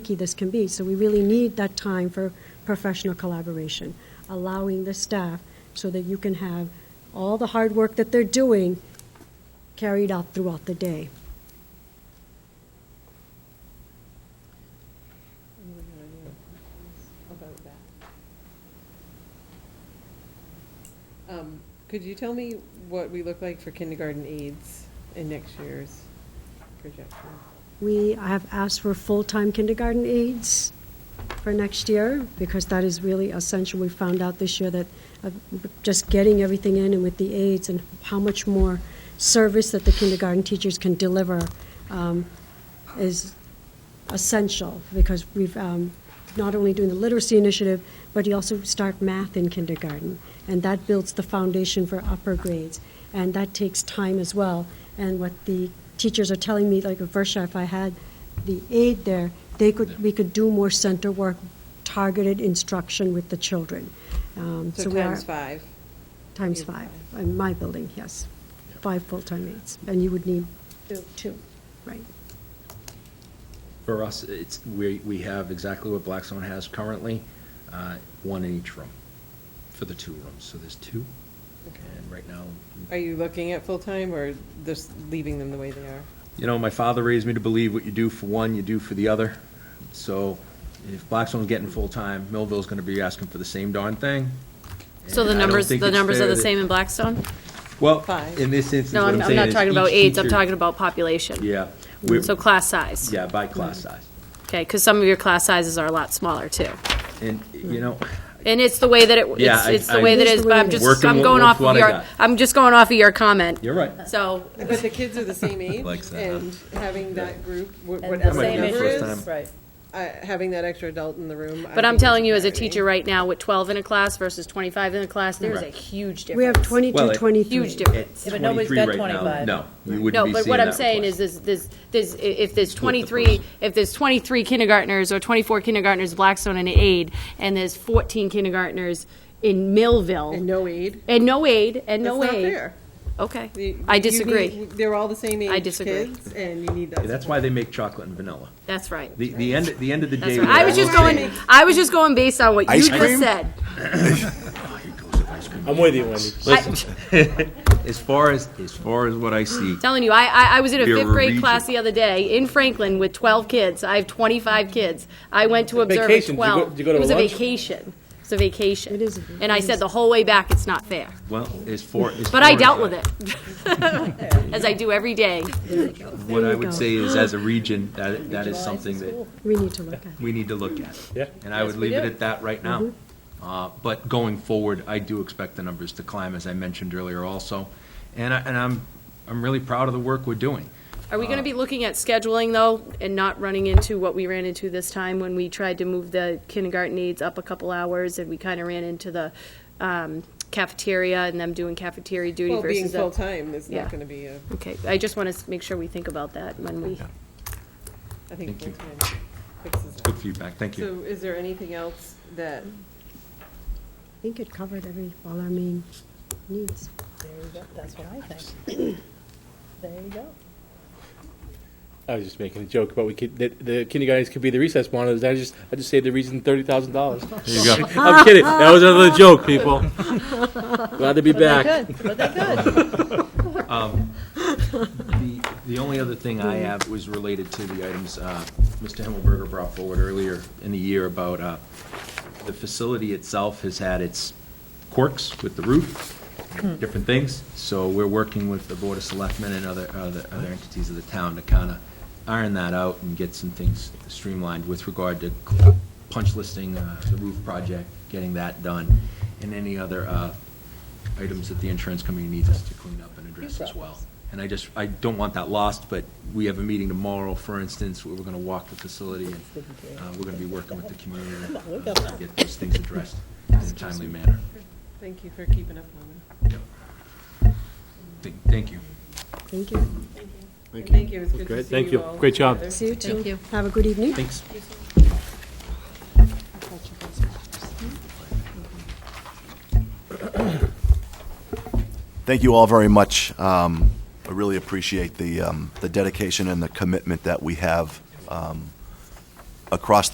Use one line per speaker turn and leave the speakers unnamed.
tricky this can be. So we really need that time for professional collaboration, allowing the staff so that you can have all the hard work that they're doing carried out throughout the day.
And we're gonna do a conference about that. Um, could you tell me what we look like for kindergarten aides in next year's projection?
We have asked for full-time kindergarten aides for next year because that is really essential. We found out this year that uh, just getting everything in and with the aides and how much more service that the kindergarten teachers can deliver um, is essential because we've um, not only doing the literacy initiative, but you also start math in kindergarten, and that builds the foundation for upper grades, and that takes time as well. And what the teachers are telling me, like at Versha, if I had the aide there, they could we could do more center work, targeted instruction with the children. Um,
So
we are-
times five.
Times
Yeah.
five, in my building, yes. Five full-time aides, and you would need two, right?
For us, it's, we, we have exactly what Blackstone has currently, uh, one in each room for the two rooms. So there's two,
Okay.
and right now,
Are you looking at full-time or just leaving them the way they are?
you know, my father raised me to believe what you do for one, you do for the other. So if Blackstone's getting full-time, Millville's gonna be asking for the same darn thing.
So the
And I don't
numbers,
think
the
it's
numbers are
fair
the
that-
same in Blackstone?
Well,
Five.
in this instance,
No,
what
I'm,
I'm
I'm
saying
not
is
talking about
each
aides, I'm
teacher-
talking about population.
Yeah. we're-
So class size.
Yeah, by class size.
Okay, because some of your class sizes are a lot smaller too.
And, you know,
And it's the way that it,
Yeah,
it's,
I-
it's the
I-
way that
It
it
is
is,
the
but
way
I'm
it is.
just,
Working
I'm
with-
going
with
off
what
of
I
your,
got.
I'm just going off of your comment.
you're right.
So,
But the kids are the same age
Likes that, huh?
and having that group, wh-
And
whatever
same
the number
age
is,
group. First time.
Right.
uh, having that extra adult in the room. I
but I'm
think is
telling you as a
priority.
teacher right now, with twelve in a class versus twenty-five in a class, there's a
Right.
huge difference.
We have 22,
Well,
23.
Huge difference.
It's
Yeah, but nobody's
23
got
right now.
25.
No, you wouldn't
No,
be
but
seeing
what I'm
that
saying
request.
is, is, this, this, if there's
person.
twenty-three, if there's twenty-three kindergartners or twenty-four kindergartners, Blackstone and aid, and there's fourteen kindergartners in Millville.
And no aid.
And no aid, and no
That's not
aid.
fair.
Okay,
You-
I
you need-
disagree.
They're all the same
I
age
disagree.
kids, and you need that.
That's
support.
why they make chocolate and vanilla.
That's right.
The, the end, the end of the day.
That's right. I was just going, I was just going based on what you
Ice
just
cream?
said.
I'm with you, Wendy.
I-
As far as, as far as what I see,
Telling you, I, I, I was in a
You're
fifth grade
region.
class the other day in Franklin with twelve kids. I have twenty-five kids. I went to observe at
Vacation. Did you go-
twelve.
did you go to
It was a
lunch?
vacation. It was a vacation.
It is a-
And I said the whole way back, it's not fair.
well, as far, as.
But I
far
dealt
as
with it, as I do every day.
What I
you go.
would say is, as a region, that, that is something that
We need to look at it.
we need to look at.
Yeah.
And I would
Yes, we
leave it
do. Mm-hmm.
at that right now. Uh, But going forward, I do expect the numbers to climb, as I mentioned earlier also. And I, and I'm, I'm really proud of the work we're doing.
Are we gonna be looking at scheduling though, and not running into what we ran into this time when we tried to move the kindergarten aides up a couple hours and we kinda ran into the, um, cafeteria and them doing cafeteria duty
Well,
versus.
being
the-
full-time is
Yeah.
not gonna be a,
Okay, I just wanna s- make sure we think about that when we,
I think
Thank you.
full-time fixes
Good
that.
feedback, thank you.
So is there anything else that,
I think it covered every, all our main needs.
There you go. That's what I think. There you go.
I was just making a joke about we could, that the kindergartens could be the recess monitors. I just, I just saved the region thirty thousand dollars.
There you go.
I'm kidding. That was another joke, people. Glad to be
But
back.
they could, but they could.
The, the only other thing I have was related to the items uh, Mr. Himmelberger brought forward earlier in the year about uh, the facility itself has had its quirks with the roof, different things. So we're working with the Board of Selectmen and other, other other entities of the town to kind of iron that out and get some things streamlined with regard to punch listing, uh, the roof project, getting that done, and any other uh, items that the insurance company needs us to clean up and address as well. And I just, I don't want that lost, but we have a meeting tomorrow, for instance, where we're going to walk the facility, and uh, we're going to be working with the community uh, to get those things addressed in a timely manner.
thank you for keeping up on that.
Yep. Th- Thank you.
Thank you.
And Thank you, it's good to
Great,
see
thank you.
all
Great job.
together.
See you too. Have a good evening.
Thanks.
Thank you all very much. Um, I really appreciate the, um, the dedication and the commitment that we have um, across